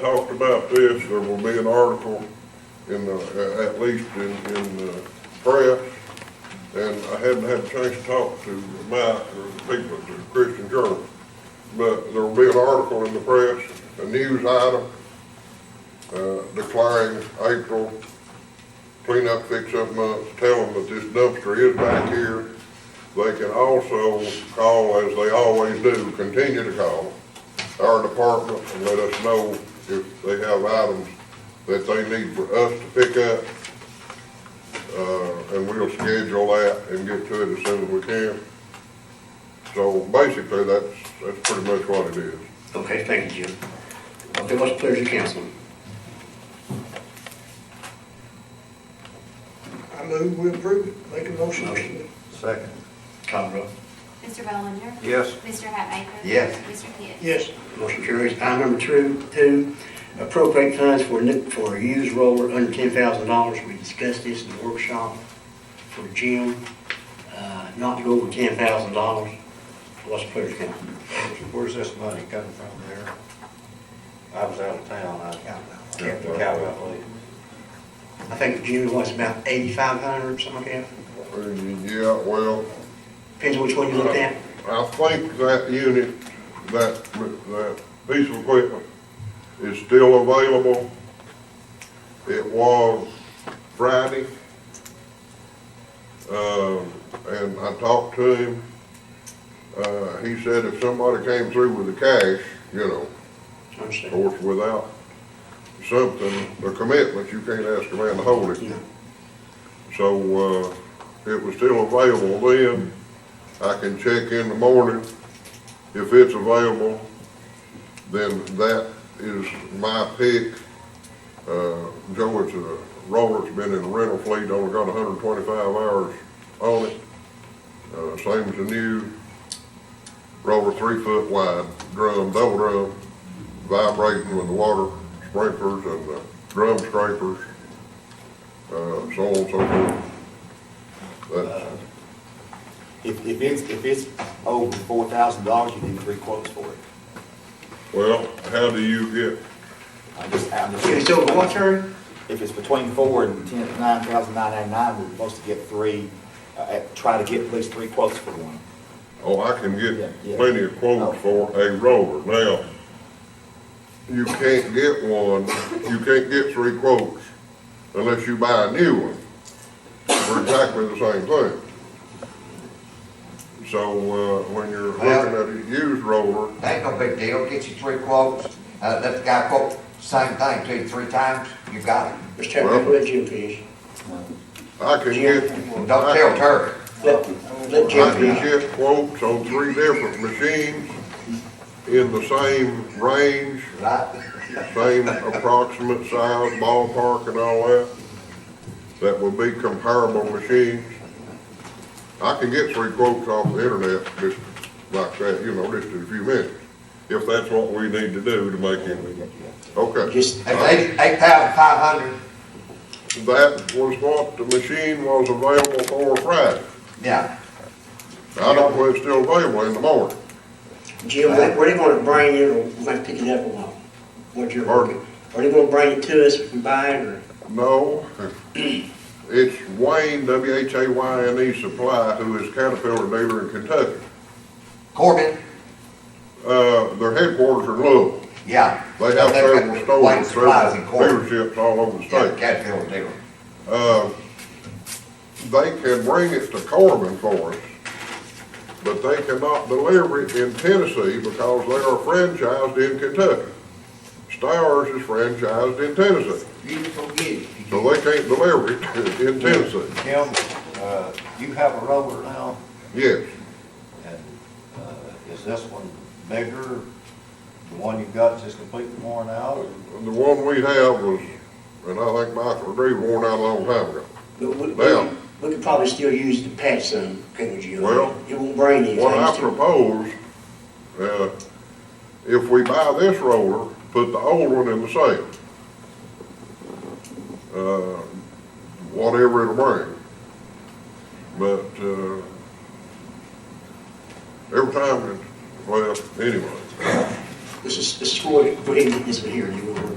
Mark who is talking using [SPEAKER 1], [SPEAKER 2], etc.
[SPEAKER 1] talked about this, there will be an article in the, at least in, in the press. And I haven't had a chance to talk to Mike or the people at the Christian Journal. But there will be an article in the press, a news item, uh, declaring April cleanup fix-up month, tell them that this dumpster is back here. They can also call, as they always do, continue to call our department and let us know if they have items that they need for us to pick up. Uh, and we'll schedule that and get to it as soon as we can. So basically, that's, that's pretty much what it is.
[SPEAKER 2] Okay, thank you, Jim. Okay, what's the pleasure of council?
[SPEAKER 3] I move we approve it, make a motion.
[SPEAKER 4] Second.
[SPEAKER 2] Call the roll.
[SPEAKER 5] Mr. Bellinger?
[SPEAKER 4] Yes.
[SPEAKER 5] Mr. Hatmaker?
[SPEAKER 4] Yes.
[SPEAKER 5] Mr. Pitt?
[SPEAKER 3] Yes,
[SPEAKER 2] Motion carries. Item number two, two, appropriate funds for new, for a used roller under ten thousand dollars. We discussed this in the workshop for Jim, uh, not to go over ten thousand dollars. What's the pleasure of council?
[SPEAKER 4] Where's this money coming from there?
[SPEAKER 6] I was out of town, I kept the cow up late.
[SPEAKER 2] I think Jim was about eighty-five hundred, something like that.
[SPEAKER 1] And, Yeah, well,
[SPEAKER 2] Depends which one you look at.
[SPEAKER 1] I think that unit, that, that piece of equipment is still available. It was Friday. Um, and I talked to him. Uh, he said if somebody came through with the cash, you know, of
[SPEAKER 2] Understand?
[SPEAKER 1] course, without something, a commitment, you can't ask a man to hold it.
[SPEAKER 2] No.
[SPEAKER 1] So, uh, it was still available then. I can check in the morning. If it's available, then that is my pick. Uh, Joe, it's a roller, has been in the rental fleet, only got hundred and twenty-five hours on it. Uh, same as the new roller, three foot wide, drum, double drum, vibrating with the water sprinklers and the drum scrapers uh, so on and so forth. That's,
[SPEAKER 6] If, if it's, if it's over four thousand dollars, you need three quotes for it.
[SPEAKER 1] well, how do you get,
[SPEAKER 6] I just, I'm just.
[SPEAKER 2] Okay, so what's her?
[SPEAKER 6] If it's between four and ten, nine thousand nine hundred nine, we're supposed to get three, uh, uh, try to get at least three quotes for one.
[SPEAKER 1] oh, I can
[SPEAKER 6] Yeah,
[SPEAKER 1] get
[SPEAKER 6] yeah.
[SPEAKER 1] plenty of quotes
[SPEAKER 7] Oh.
[SPEAKER 1] for a roller. Now, you can't get one, you can't get three quotes unless you buy a new one for exactly the same thing. So, uh, when you're looking
[SPEAKER 7] Well-
[SPEAKER 1] at a used roller,
[SPEAKER 7] Ain't no big deal, get you three quotes, uh, let the guy quote same thing to you three times, you got it.
[SPEAKER 2] Mr. Chapman, let Jim finish.
[SPEAKER 1] I can get.
[SPEAKER 7] Don't tell Terry.
[SPEAKER 2] Let, let
[SPEAKER 1] I
[SPEAKER 2] Jim
[SPEAKER 1] can
[SPEAKER 2] finish.
[SPEAKER 1] get quotes on three different machines in the same range,
[SPEAKER 7] right?
[SPEAKER 1] same approximate size, ballpark and all that, that would be comparable machines. I can get three quotes off the internet, just like that, you know, just in a few minutes, if that's what we need to do to make it, okay.
[SPEAKER 2] Just
[SPEAKER 7] If eight, eight thousand five hundred,
[SPEAKER 1] That was what the machine was available for Friday.
[SPEAKER 7] yeah,
[SPEAKER 1] I don't know if it's still available in the morning.
[SPEAKER 2] Jim, what what are they gonna bring you, or we're gonna pick it up along? What you're,
[SPEAKER 1] Pardon?
[SPEAKER 2] are they gonna bring it to us if we buy it, or?
[SPEAKER 1] No, it's Wayne, W-H-A-Y-N-E E Supply, who is Caterpillar dealer in Kentucky.
[SPEAKER 7] Corbin,
[SPEAKER 1] Uh, their headquarters are in Louisville.
[SPEAKER 7] yeah.
[SPEAKER 1] They have several stores, several
[SPEAKER 7] Wayne Supplies in Corbin,
[SPEAKER 1] dealerships all over the
[SPEAKER 7] yeah,
[SPEAKER 1] state.
[SPEAKER 7] Caterpillar dealer.
[SPEAKER 1] Uh, they can bring it to Corbin for us, but they cannot deliver it in Tennessee because they are franchised in Kentucky. Stowers is franchised in Tennessee,
[SPEAKER 7] You just go get it.
[SPEAKER 1] so they can't deliver it in Tennessee.
[SPEAKER 4] Jim, uh, you have a roller now,
[SPEAKER 1] Yes,
[SPEAKER 4] and, uh, is this one bigger? The one you got just completely worn out, or?
[SPEAKER 1] The one we have was, and I think Michael agree, worn out a long time ago.
[SPEAKER 2] But we, we,
[SPEAKER 1] Well-
[SPEAKER 2] we could probably still use the patch some, couldn't we, Jim?
[SPEAKER 1] Well,
[SPEAKER 2] It won't bring anything.
[SPEAKER 1] What I
[SPEAKER 2] to-
[SPEAKER 1] propose, uh, if we buy this roller, put the old one in the sale. Uh, whatever it'll bring. But, uh, every time, it well, anyway.
[SPEAKER 2] This is, this is for, for him, this one here, you know.